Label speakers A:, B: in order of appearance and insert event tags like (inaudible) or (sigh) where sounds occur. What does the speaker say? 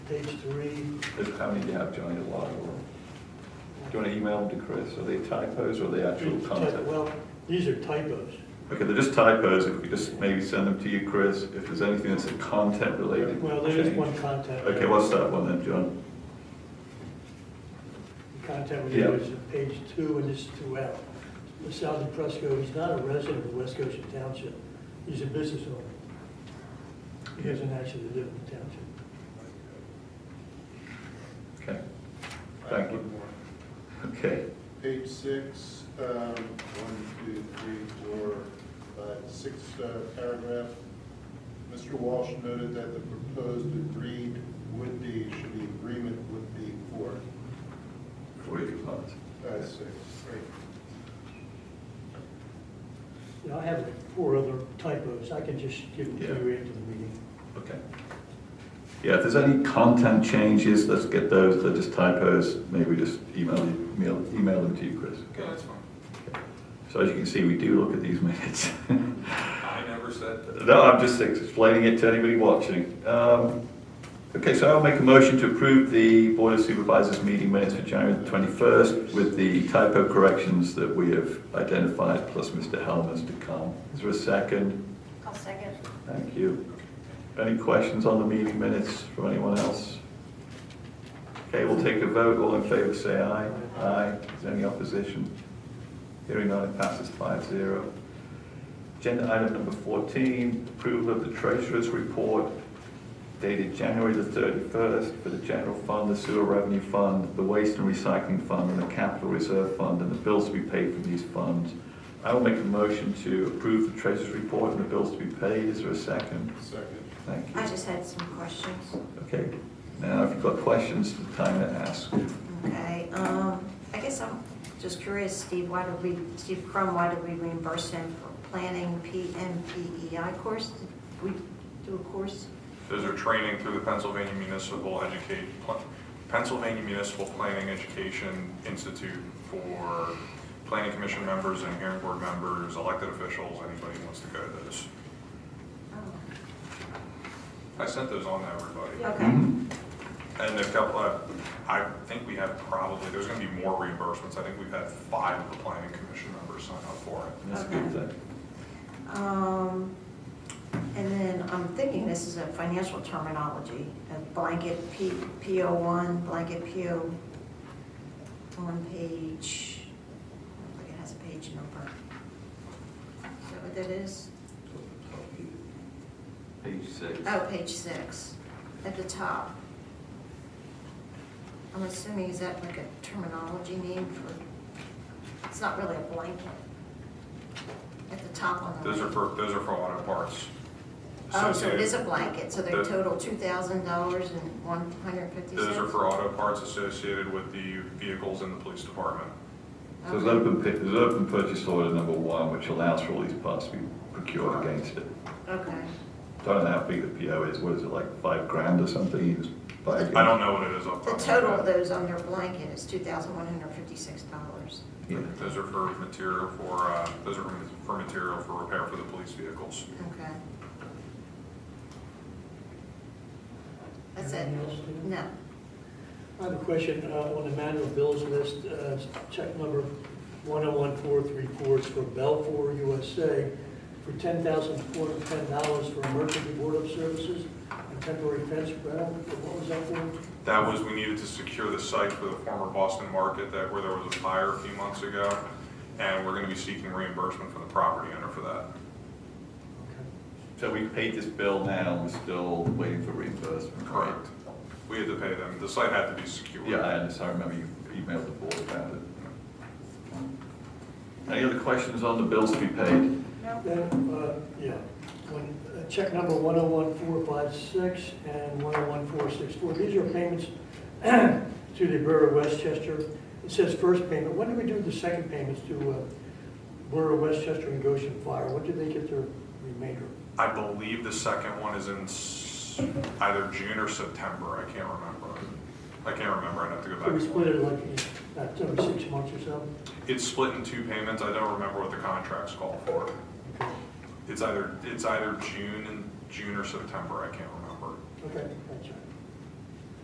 A: page three.
B: Is- How many do you have, Johnny, a lot or? Do you want to email them to Chris? Are they typos or are they actual content?
A: Well, these are typos.
B: Okay, they're just typos. If we just maybe send them to you, Chris, if there's anything that's a content related.
A: Well, there is
B: change.
A: one content.
B: Okay, what's that one then, John?
A: The content we do
B: Yeah.
A: is page two, and this is throughout. Sal DePresco, he's not a resident of West Goshen Township. He's a business owner. He doesn't actually live in the township.
B: Okay, thank you. Okay,
C: Page six, um, one, two, three, four, five, six, uh, paragraph. Mr. Walsh noted that the proposed agreed would be, should be agreement would be for,
B: for your compliance.
C: uh, six, right.
A: You know, I have four other typos. I can just give them to you after the meeting.
B: Okay. Yeah, if there's any content changes, let's get those. They're just typos. Maybe just email, you- email, email them to you, Chris.
D: Okay, that's fine.
B: So as you can see, we do look at these (laughs) minutes.
D: I never said that.
B: No, I'm just explaining it to anybody watching. Um, Okay, so I'll make a motion to approve the Board of Supervisors meeting minutes for January the 21st with the typo corrections that we have identified, plus Mr. Helmer's to come. Is there a second?
E: I'll second.
B: Thank you. Any questions on the meeting minutes from anyone else? Okay, we'll take a vote. All in favor, say aye. Aye. Is there any opposition? Hearing none, it passes five zero. Agenda item number 14, approval of the treasurer's report dated January the 31st for the general fund, the sewer revenue fund, the waste and recycling fund, and the capital reserve fund, and the bills to be paid from these funds. I will make a motion to approve the treasurer's report and the bills to be paid. Is there a second?
C: Second.
B: Thank you.
E: I just had some questions.
B: Okay, now if you've got questions, the time to ask.
E: Okay, um, I guess I'm just curious, Steve, why did we, Steve Crum, why did we reimburse him for planning PMPEI E course? Did we do a course?
D: Those are training through the Pennsylvania Municipal Educate, Pl- Pennsylvania Municipal Planning Education Institute for planning commission members and hearing board members, elected officials, anybody who wants to go to those.
E: Oh,
D: I sent those on to everybody.
E: Okay,
B: Mhm.
D: And a couple, uh, I think we have probably, there's gonna be more reimbursements. I think we've had five of the planning commission members sign up for it.
B: That's a good thing.
E: um, and then I'm thinking this is a financial terminology, a blanket P, PO one, blanket PO on page, I don't think it has a page number. Is that what that is?
B: Page six.
E: Oh, page six, at the top. I'm assuming, is that like a terminology name for, it's not really a blanket. At the top on the.
D: Those are
E: right.
D: for, those are for auto parts.
E: Oh, so it
D: Associated-
E: is a blanket, so they
D: The-
E: total two thousand dollars and one hundred fifty cents?
D: Those are for auto parts associated with the vehicles in the police department.
B: So there's open, pi- there's open purchase order number one, which allows for all these parts to be procured against it.
E: Okay,
B: Don't know how big the PO is, what is it, like five grand or something? You just buy it.
D: I don't know what it is off the
E: the
D: top of my
E: total of
D: head.
E: those on their blanket is two thousand one hundred fifty-six dollars.
B: Yeah.
D: Those are for material for, uh, those are for material for repair for the police vehicles.
E: Okay. That's it?
A: Anything else, Steve?
E: No.
A: I have a question uh, on the manual bills list, uh, check number 101434 is for Belfour USA for $10,410 for emergency board of services and temporary fence rental. What was that for?
D: That was, we needed to secure the site for the former Boston Market that, where there was a fire a few months ago, and we're gonna be seeking reimbursement from the property owner for that.
B: So we paid this bill now, we're still waiting for reimbursement. right?
D: Correct. We had to pay them, the site had to be secured.
B: Yeah, I understand, I remember you emailed the board about it. Any other questions on the bills to be paid?
E: No.
A: Then, uh, yeah, when, uh, check number 101456 and 101464, these are payments (clears throat) to the Borough of Westchester. It says first payment, when do we do the second payments to uh, Borough of Westchester and Goshen Fire? When do they get their remainder?
D: I believe the second one is in s- either June or September, I can't remember. I can't remember, I'd have to go back.
A: So we
D: and look.
A: split it like, uh, every six months or so?
D: It's split in two payments, I don't remember what the contracts call for. It's either, it's either June and, June or September, I can't remember.
A: Okay, gotcha.